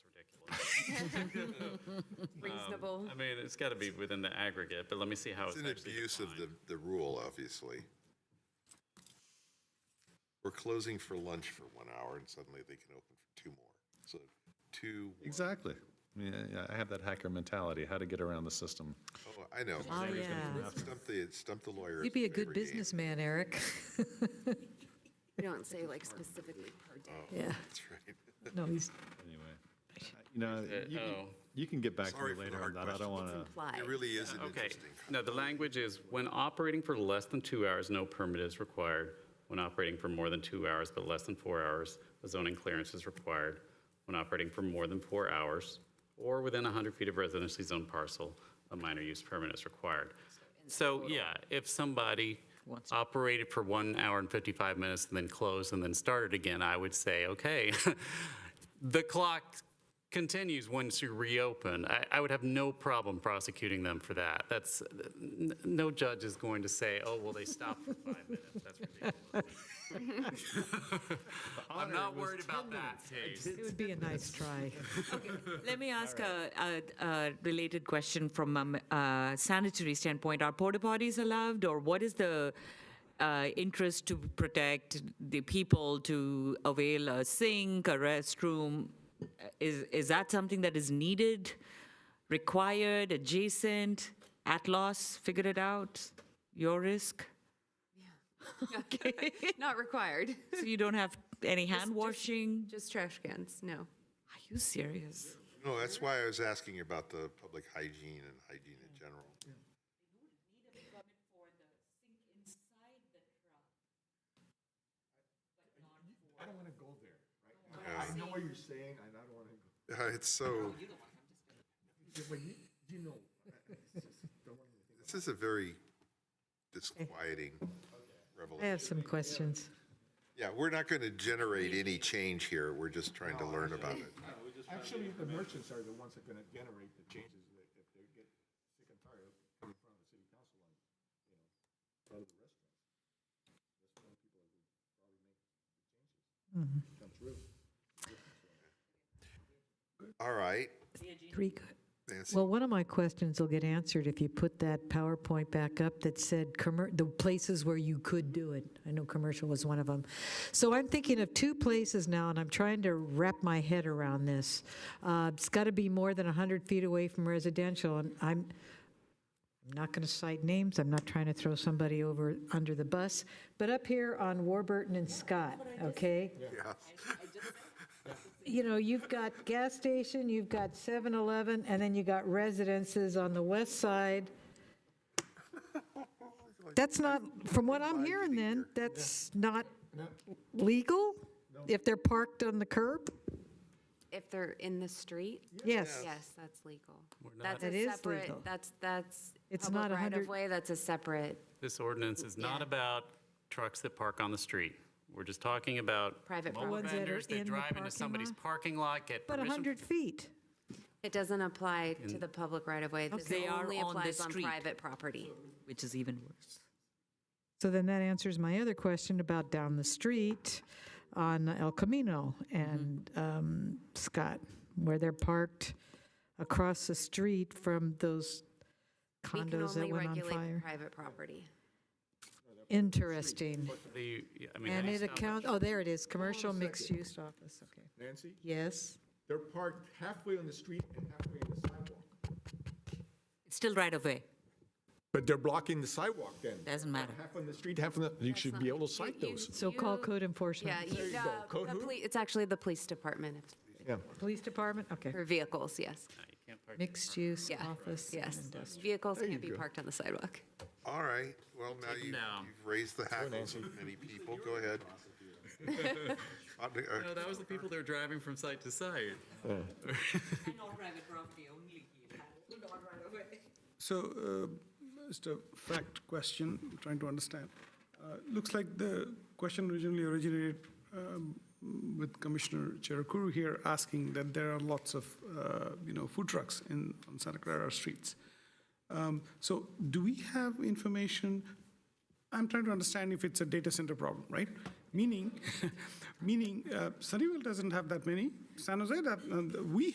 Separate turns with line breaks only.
Reasonable.
Um,
I mean, it's got to be within the aggregate, but let me see how it's
It's an
actually
abuse of
defined.
the, the rule, obviously. We're closing for lunch for one hour and suddenly they can open for two more. So two, one-
Exactly. Yeah, yeah, I have that hacker mentality, how to get around the system.
oh, I know.
Oh, yeah.
Stump the, stump the lawyer.
You'd be a
is my
good
favorite game.
businessman, Eric.
You don't say like specifically per day.
Yeah.
That's right.
No, he's,
Anyway, you know, you can,
oh.
you can get back to me
Sorry for the
later on
hard
that. I don't
question.
want
It's
to.
It
implied.
really is an
Okay,
interesting.
no, the language is, when operating for less than two hours, no permit is required. When operating for more than two hours but less than four hours, a zoning clearance is required. When operating for more than four hours, or within 100 feet of residentially zoned parcel, a minor use permit is required. So, yeah, if somebody operated for one hour and 55 minutes and then closed and then started again, I would say, okay, the clock continues once you reopen, I, I would have no problem prosecuting them for that. That's, n- no judge is going to say, oh, well, they stopped for five minutes. That's ridiculous. I'm not worried about that case.
it would be a nice try.
Let me ask a, a, a related question from a m- a sanitary standpoint. Are porta potties allowed, or what is the uh, interest to protect the people to avail a sink, a restroom? Is is that something that is needed, required, adjacent, at loss? Figure it out. Your risk.
Not required.
So you don't have any hand washing.
Just trash cans, no.
Are you serious?
No, that's
Mm-hmm.
why I was asking about the public hygiene and hygiene in general.
I know what you're saying, and I don't want to,
Uh, It's so,
but you, you know,
this is a very disquieting
I
revelation.
have some questions.
Yeah, we're not going to generate any change here. We're just trying to learn about it.
actually, the merchants are the ones that are gonna generate the changes that if they get sick and tired of coming in front of the city council and, you know, front of the restaurants. That's when people are gonna probably make the changes. Come through.
All right.
Three good.
Nancy.
Well, one of my questions will get answered if you put that PowerPoint back up that said, commer- the places where you could do it. I know commercial was one of them. So I'm thinking of two places now, and I'm trying to wrap my head around this. Uh, It's got to be more than 100 feet away from residential, and I'm, I'm not going to cite names, I'm not trying to throw somebody over, under the bus, but up here on Warburton and Scott, okay? you know, you've got gas station, you've got 7-Eleven, and then you got residences on the west side. That's not, from what I'm hearing then, that's not legal? If they're parked on the curb?
If they're in the street,
Yes.
yes, that's legal. That's
That
a
is
separate,
legal.
that's, that's
It's
public
not a
right
hundred-
of way, that's a separate
This ordinance is not about trucks that park on the street. We're just talking about
private
mobile
property.
ones that are
vendors
in
that
the
drive into
parking
somebody's
lot?
parking lot, get
But
permission
100 feet?
It doesn't apply to the public right of way. This
They are
only
on the
applies on
street.
private property.
Which is even worse.
So then that answers my other question about down the street on El Camino
Mm-hmm.
and um, Scott, where they're parked across the street from those
We can
condos that
only
went on
regulate
fire.
private property.
Interesting.
The, I mean,
And
that's
it
not-
accounts, oh, there it is, commercial mixed-use office, okay.
Nancy,
Yes,
they're parked halfway on the street and halfway on the sidewalk.
It's still right of way.
But they're blocking the sidewalk then.
Doesn't matter.
Half on the street, half on the, you should be able to cite those.
so call
You-
code enforcement.
Yeah, you,
go.
uh,
Code
the
who?
poli- it's actually the police department, if-
Police department, okay.
for vehicles, yes,
Mixed-use
Yeah,
office.
yes. Vehicles can't be parked on the sidewalk.
All right. Well, now you,
down.
you've raised the hackles of many people. Go ahead. Uh, uh,
No, that was the people that were driving from site to site.
So, uh, just a fact question, I'm trying to understand. Uh, Looks like the question originally originated um, with Commissioner Cherakuru here asking that there are lots of, uh, you know, food trucks in, on Santa Clara streets. Um, So do we have information? I'm trying to understand if it's a data center problem, right? Meaning, meaning uh, Sunnyvale doesn't have that many, San Jose, that, uh, we